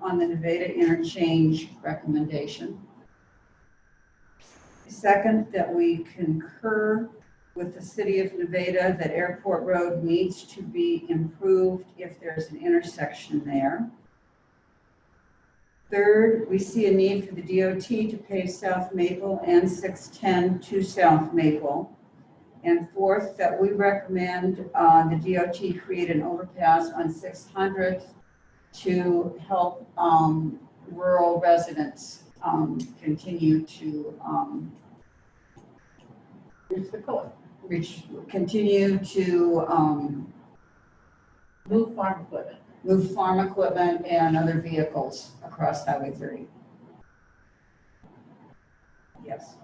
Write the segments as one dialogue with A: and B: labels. A: on the Nevada interchange recommendation. Second, that we concur with the city of Nevada that Airport Road needs to be improved if there's an intersection there. Third, we see a need for the DOT to pave South Maple and 610 to South Maple. And fourth, that we recommend uh, the DOT create an overpass on 600 to help um, rural residents um, continue to um,
B: Here's the code.
A: reach, continue to um,
B: Move farm equipment.
A: move farm equipment and other vehicles across Highway 30. Yes.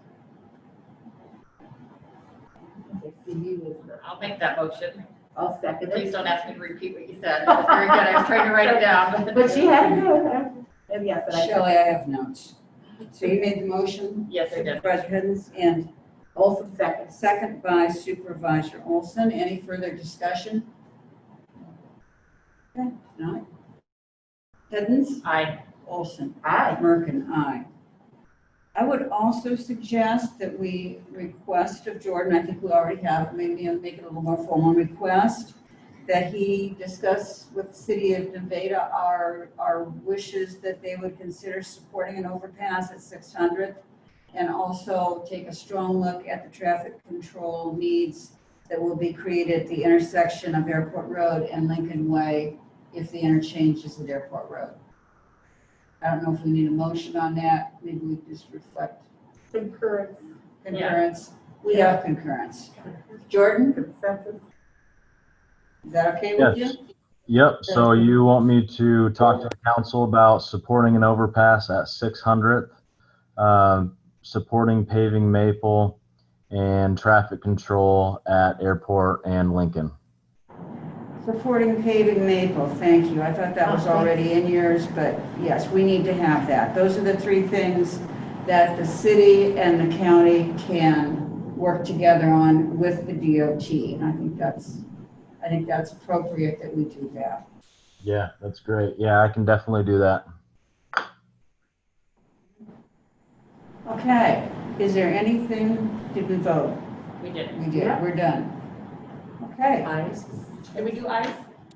B: Okay, see, you was the-
C: I'll make that motion.
B: I'll second
C: Please
B: it.
C: don't ask me to repeat what you said. That was very good. I was trying to write it down.
B: But she had it with her. And yes, and I.
A: Shelley, I have notes. So you made the motion,
C: Yes, I did.
A: Supervisor Hiddens, and also
B: Olson "Oh, seconds.
A: second by Supervisor Olson. Any further discussion? Okay, not. Hiddens,
C: Aye.
A: Olson.
B: Aye.
A: Merkin, aye. I would also suggest that we request of Jordan, I think we already have, maybe I'll make it a little more formal request, that he discuss with the city of Nevada our, our wishes that they would consider supporting an overpass at 600th and also take a strong look at the traffic control needs that will be created at the intersection of Airport Road and Lincoln Way if the interchange is at Airport Road. I don't know if we need a motion on that, maybe we just reflect
B: Concurrence.
A: concurrence. We have concurrence. Jordan,
B: Consensus.
A: is that okay with you?
D: Yes. Yep, so you want me to talk to the council about supporting an overpass at 600th, um, supporting paving Maple, and traffic control at Airport and Lincoln.
A: Supporting paving Maple, thank you. I thought that was already in yours, but yes, we need to have that. Those are the three things that the city and the county can work together on with the DOT. And I think that's, I think that's appropriate that we do that.
D: Yeah, that's great. Yeah, I can definitely do that.
A: Okay, is there anything, did we vote?
C: We did.
A: We did,
B: Yeah.
A: we're done. Okay,
B: Ayes.
C: Did we do ayes?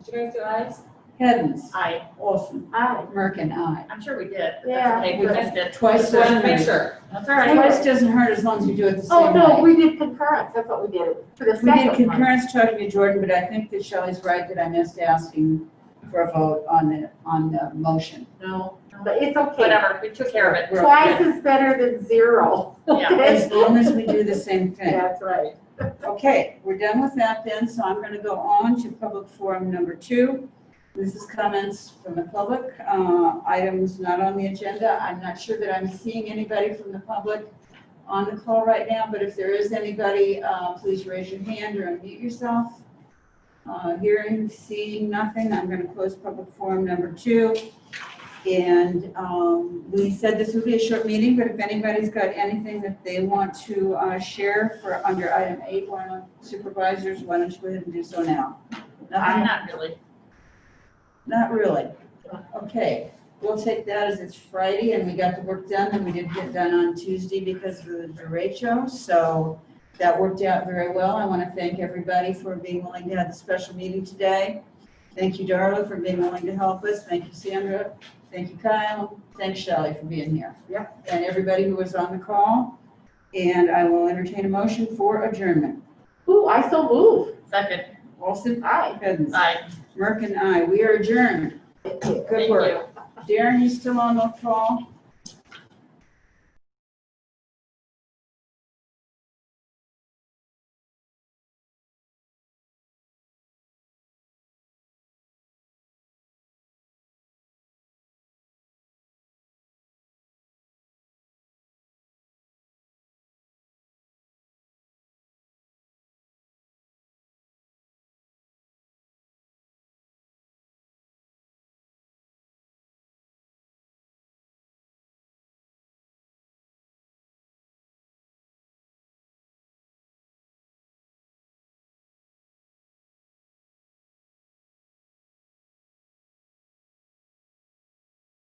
C: Did you guys do ayes?
A: Heddens,
C: Aye.
A: Olson,
B: Aye.
A: Merkin, aye.
C: I'm sure we did. but
B: Yeah.
C: That's okay. We missed it.
A: Twice
C: Just wanted to make
A: doesn't-
C: sure. That's all right.
A: Twice doesn't hurt as long as you do it the same way.
B: Oh, no, we did concurrence. That's what we did. For the
A: We did
B: second one.
A: concurrence talking to Jordan, but I think that Shelley's right that I missed asking for a vote on the, on the motion.
C: No. no.
B: But it's okay.
C: Whatever. We took care of it.
B: Twice is better than zero.
C: Yeah.
A: As long as we do the same thing.
B: That's right.
A: Okay, we're done with that then, so I'm going to go on to public forum number two. This is comments from the public, uh, items not on the agenda. I'm not sure that I'm seeing anybody from the public on the call right now, but if there is anybody, uh, please raise your hand or unmute yourself. Uh, Hearing, seeing nothing, I'm going to close public forum number two. And um, we said this would be a short meeting, but if anybody's got anything that they want to uh, share for under item eight, one of supervisors, why don't you go ahead and do so now? Nothing?
C: I'm not really.
A: Not really. Okay, we'll take that as it's Friday and we got the work done and we didn't get done on Tuesday because of the derecho. So that worked out very well. I want to thank everybody for being willing to have the special meeting today. Thank you, Darla, for being willing to help us. Thank you, Sandra. Thank you, Kyle. Thanks, Shelley, for being here.
B: Yeah.
A: And everybody who was on the call. And I will entertain a motion for adjournment.
B: Ooh, I so move.
C: Second.
A: Olson?
B: Aye.
A: Hiddens?
C: Aye.
A: Merkin, aye. We are adjourned.
B: Thank
A: Good
C: Thank
A: work.
C: you.
A: Darren, you still on the call?